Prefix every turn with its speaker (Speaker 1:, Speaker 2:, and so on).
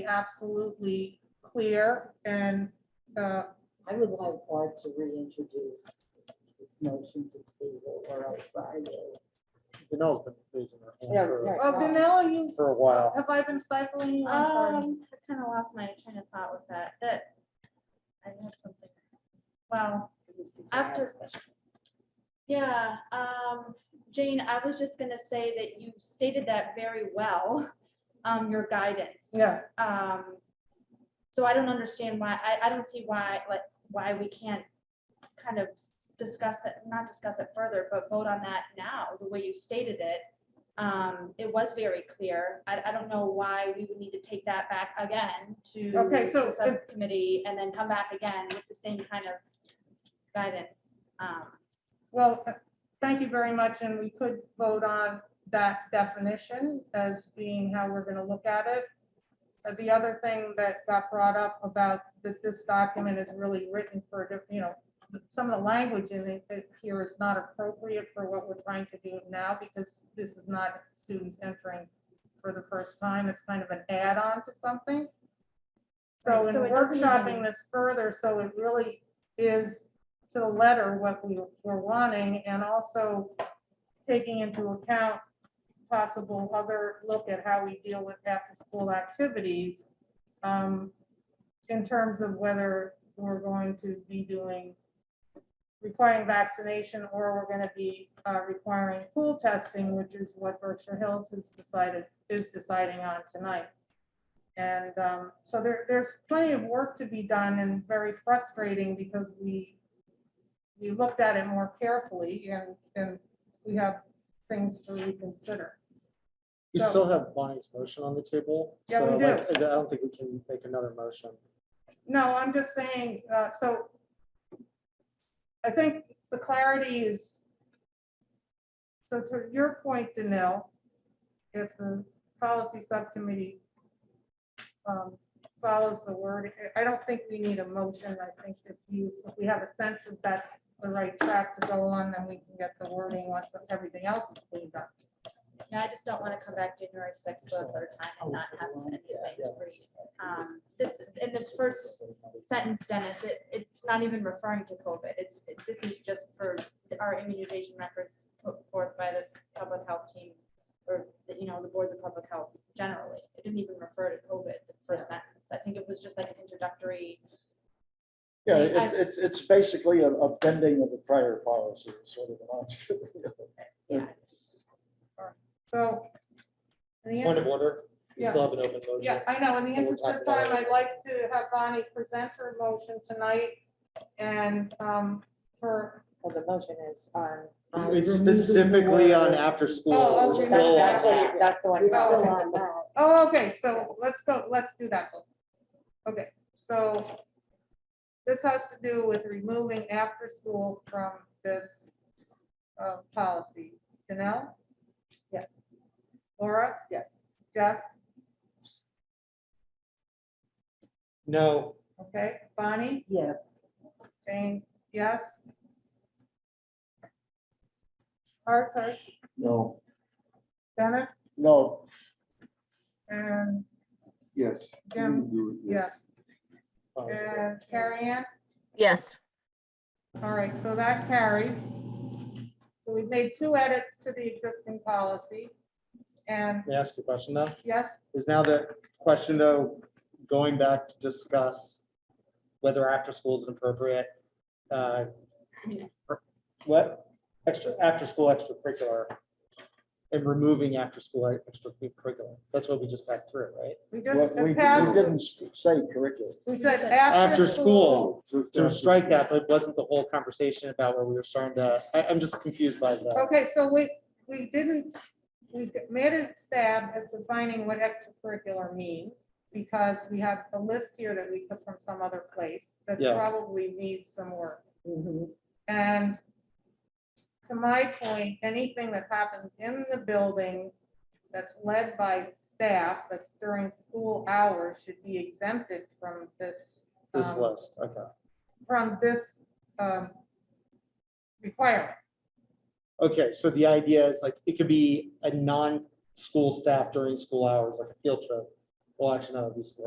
Speaker 1: be absolutely clear and, uh,
Speaker 2: I would like Art to reintroduce this motion to table or else I will.
Speaker 3: Janelle's been raising her
Speaker 2: Yeah,
Speaker 3: hand for,
Speaker 2: right.
Speaker 1: oh, Vanilla, you,
Speaker 3: for a while.
Speaker 1: have I been stifling you? I'm sorry.
Speaker 4: Um, I kind of lost my train of thought with that, that I have something. Well, after, yeah, um, Jane, I was just gonna say that you stated that very well, um, your guidance.
Speaker 1: Yeah,
Speaker 4: Um, so I don't understand why, I, I don't see why, like, why we can't kind of discuss that, not discuss it further, but vote on that now, the way you stated it. Um, it was very clear. I, I don't know why we would need to take that back again to
Speaker 1: Okay, so
Speaker 4: the
Speaker 1: if-
Speaker 4: subcommittee and then come back again with the same kind of guidance. Um,
Speaker 1: well, th- thank you very much, and we could vote on that definition as being how we're gonna look at it. Uh, The other thing that got brought up about that this document is really written for, a diff- you know, some of the language in it that here is not appropriate for what we're trying to do now, because this is not students entering for the first time, it's kind of an add-on to something. So
Speaker 4: Right,
Speaker 1: in
Speaker 4: so it doesn't
Speaker 1: workshopping
Speaker 4: even-
Speaker 1: this further, so it really is to the letter what we were wanting, and also taking into account possible other look at how we deal with after-school activities um, in terms of whether we're going to be doing, requiring vaccination or we're going to be uh, requiring pool testing, which is what Berkshire Hills has decided, is deciding on tonight. And um, so there, there's plenty of work to be done and very frustrating because we, we looked at it more carefully and, and we have things to reconsider.
Speaker 3: We
Speaker 1: So-
Speaker 3: still have Bonnie's motion on the table.
Speaker 1: Yeah, we
Speaker 3: so, like, I don't think we can make another motion.
Speaker 1: No, I'm just saying, uh, so I think the clarity is, so to your point, Danil, if the policy subcommittee um, follows the word, I I don't think we need a motion. I think if you, if we have a sense that that's the right track to go on, then we can get the wording once everything else is cleaned up.
Speaker 4: yeah, I just don't want to come back January sixth for a third time and not have anything to read. Um, this, in this first sentence, Dennis, it, it's not even referring to COVID. It's, it- this is just for our immunization records put forth by the public health team or, the- you know, the boards of public health generally. It didn't even refer to COVID, the first sentence. I think it was just like an introductory,
Speaker 5: Yeah,
Speaker 4: I-
Speaker 5: it's, it's, it's basically a, a bending of the prior policy, is sort of amounts to.
Speaker 4: yeah.
Speaker 1: So. in the end-
Speaker 3: Point of order, we
Speaker 1: Yeah.
Speaker 3: still have an open motion.
Speaker 1: Yeah, I know. In the
Speaker 3: We'll
Speaker 1: interest
Speaker 3: talk
Speaker 1: of
Speaker 3: about
Speaker 1: time,
Speaker 3: it.
Speaker 1: I'd like to have Bonnie present her motion tonight and um, for,
Speaker 2: Well, the motion is on. on
Speaker 3: Um, It's
Speaker 2: removing
Speaker 3: specifically on
Speaker 2: words.
Speaker 3: after school.
Speaker 1: Oh,
Speaker 3: We're
Speaker 1: okay.
Speaker 2: That's-
Speaker 3: still-
Speaker 2: That's what it- that's the one.
Speaker 1: We're still
Speaker 2: on that.
Speaker 1: oh, okay, so let's go, let's do that. one. Okay, so this has to do with removing after school from this uh, policy. Janelle?
Speaker 2: Yes.
Speaker 1: Laura?
Speaker 2: Yes.
Speaker 1: Jeff?
Speaker 3: No,
Speaker 1: Okay, Bonnie?
Speaker 2: Yes.
Speaker 1: Jane? Yes? Arthur?
Speaker 5: No.
Speaker 1: Dennis?
Speaker 5: No,
Speaker 1: And
Speaker 6: Yes.
Speaker 1: Jim?
Speaker 6: Yeah.
Speaker 1: Yes. Uh,
Speaker 3: Bonnie's motion.
Speaker 1: And Carrie Ann?
Speaker 7: Yes,
Speaker 1: All right, so that carries. So We've made two edits to the existing policy. And
Speaker 3: May I ask you a question, though?
Speaker 1: yes,
Speaker 3: Is now the question, though, going back to discuss whether after school is an appropriate, uh, what, extra, after-school extracurricular and removing after-school extracurricular. That's what we just passed through, right?
Speaker 1: we
Speaker 5: what
Speaker 1: just
Speaker 5: we, we
Speaker 1: passed,
Speaker 5: didn't sp- say curriculum.
Speaker 1: we said
Speaker 4: After
Speaker 1: after
Speaker 3: After
Speaker 1: school.
Speaker 3: school, to strike that, but wasn't the whole conversation about where we were starting to, I, I'm just confused by the,
Speaker 1: Okay, so we, we didn't, we made a stab at defining what extracurricular means because we have a list here that we took from some other place that
Speaker 3: Yeah.
Speaker 1: probably needs some work.
Speaker 2: Mhm.
Speaker 1: And to my point, anything that happens in the building that's led by staff, that's during school hours, should be exempted from this.
Speaker 3: this
Speaker 1: um,
Speaker 3: list, okay.
Speaker 1: From this um, requirement.
Speaker 3: Okay, so the idea is like, it could be a non-school staff during school hours, like a field trip. Well, actually, no, it'd be school